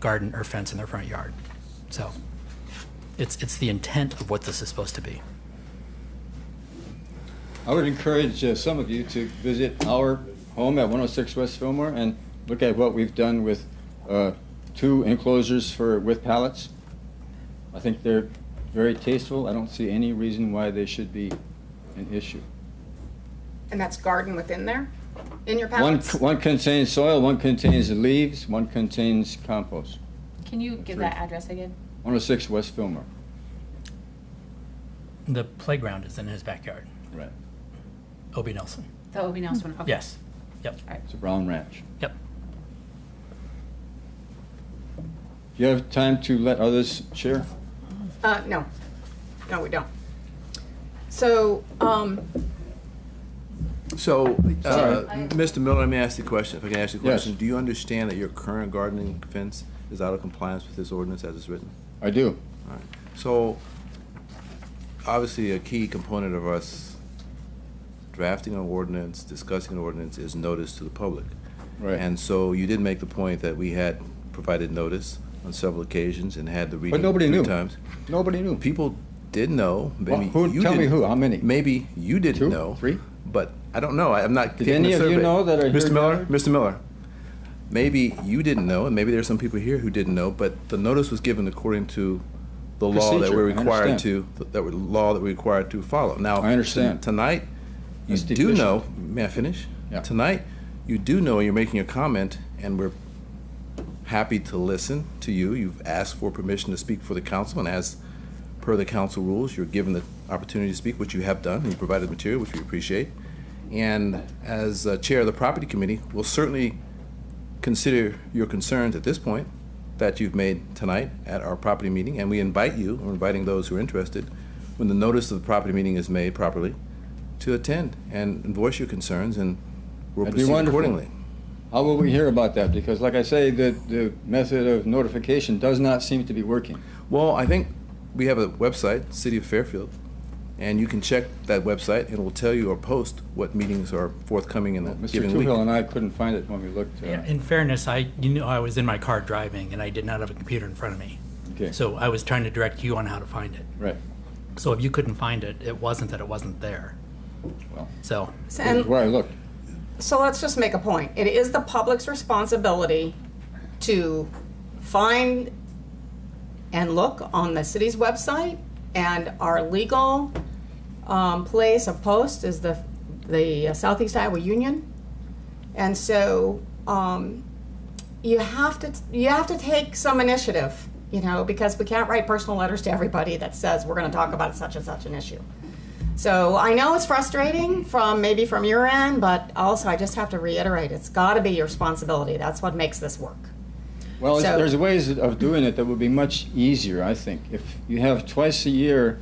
garden or fence in their front yard. So it's, it's the intent of what this is supposed to be. I would encourage uh, some of you to visit our home at 106 West Fillmore and look at what we've done with uh, two enclosures for with pallets. I think they're very tasteful. I don't see any reason why they should be an issue. And that's garden within there, in your One, pallets? one contains soil, one contains leaves, one contains compost. Can you give Three. that address again? 106 West Fillmore. The playground is in his backyard, Right. Obie Nelson. The Obie Nelson one, okay. Yes. Yep. All right. It's a brown ranch. Yep. Do you have time to let others share? Uh, no, no, we don't. So, um, So, uh, Mr. Miller, let me ask you a question, if I can ask you a Yes. question. Do you understand that your current gardening fence is out of compliance with this ordinance as it's written? I do. All right. So, obviously, a key component of us drafting an ordinance, discussing an ordinance, is notice to the public. Right. And so you did make the point that we had provided notice on several occasions and had the reading nobody three knew. times. Nobody knew. People did know. Maybe Well, who- you tell me didn't- who, how many? Maybe you didn't Two? know. Three? But I don't know. I, I'm not. Did taking any a of you survey. know that are here Mr. Miller? gathered? Mr. Miller. Maybe you didn't know, and maybe there's some people here who didn't know. But the notice was given according to the law that Procedure, we're I required to understand. that we're, law that we're required to follow. Now I understand. Tonight, you That's do deficient. know. May I finish? Yeah. Tonight, you do know. You're making a comment, and we're happy to listen to you. You've asked for permission to speak for the council, and as per the council rules, you're given the opportunity to speak, which you have done, and you provided material, which we appreciate. And as uh, chair of the property committee, we'll certainly consider your concerns at this point that you've made tonight at our property meeting, and we invite you, we're inviting those who are interested, when the notice of the property meeting is made properly, to attend and voice your concerns, and we'll That'd be proceed wonderful. accordingly. How will we hear about that? Because like I say, the, the method of notification does not seem to be working. Well, I think we have a website, City of Fairfield, and you can check that website, and it will tell you or post what meetings are forthcoming in the Mr. given week. Toohill and I couldn't find it when we looked. uh, In fairness, I, you know, I was in my car driving and I did not have a computer in front of me. Okay, So I was trying to direct you on how to find it. right. So if you couldn't find it, it wasn't that it wasn't there. Well. So, This is and where I looked. So let's just make a point. It is the public's responsibility to find and look on the city's website and our legal um, place of post is the, the Southeast Iowa Union. And so um, you have to, you have to take some initiative, you know, because we can't write personal letters to everybody that says we're going to talk about such and such an issue. So I know it's frustrating from maybe from your end, but also I just have to reiterate, it's got to be your responsibility. That's what makes this work. Well, it's- So- there's ways of doing it that would be much easier, I think. If you have twice a year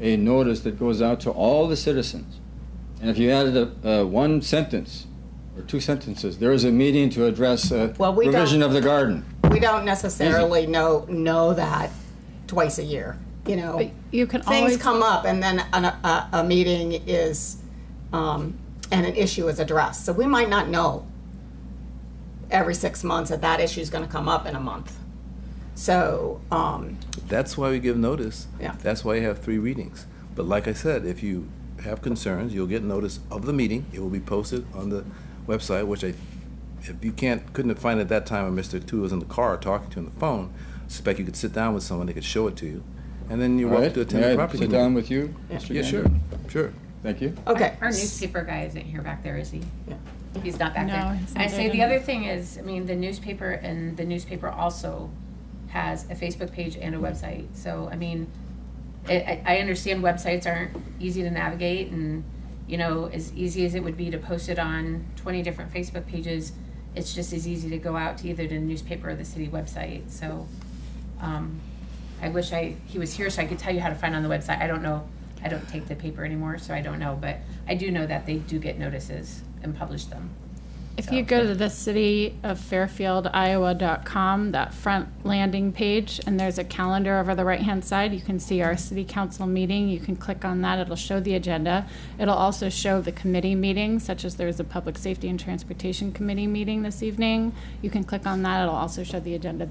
a notice that goes out to all the citizens, and if you added a, uh, one sentence or two sentences, there is a meeting to address uh, Well, we don't- revision of the garden. We don't necessarily know know that twice a year. You know, But you can things always- come up, and then an, a, a meeting is um, and an issue is addressed. So we might not know every six months that that issue is going to come up in a month. So um, That's why we give notice. Yeah. That's why you have three readings. But like I said, if you have concerns, you'll get notice of the meeting. It will be posted on the website, which I, if you can't, couldn't find it at that time, and Mr. Tu was in the car talking to you on the phone, suspect you could sit down with someone, they could show it to you, and then you're All welcome right? to attend May the I property sit meeting. down with you? Yeah. Mr. Yeah, sure, Gander? sure. Thank you. okay, Our newspaper guy isn't here back there, is he? Yeah. He's not back No, there. he's I not say there the tonight. other thing is, I mean, the newspaper and the newspaper also has a Facebook page and a website. So, I mean, I- I, I understand websites aren't easy to navigate and, you know, as easy as it would be to post it on twenty different Facebook pages, it's just as easy to go out to either the newspaper or the city website, so, um, I wish I, he was here so I could tell you how to find on the website. I don't know, I don't take the paper anymore, so I don't know, but I do know that they do get notices and publish them. If you go to the city of Fairfield, Iowa.com, that front landing page, and there's a calendar over the right-hand side, you can see our city council meeting. You can click on that. It'll show the agenda. It'll also show the committee meetings, such as there's a Public Safety and Transportation Committee meeting this evening. You can click on that. It'll also show the agenda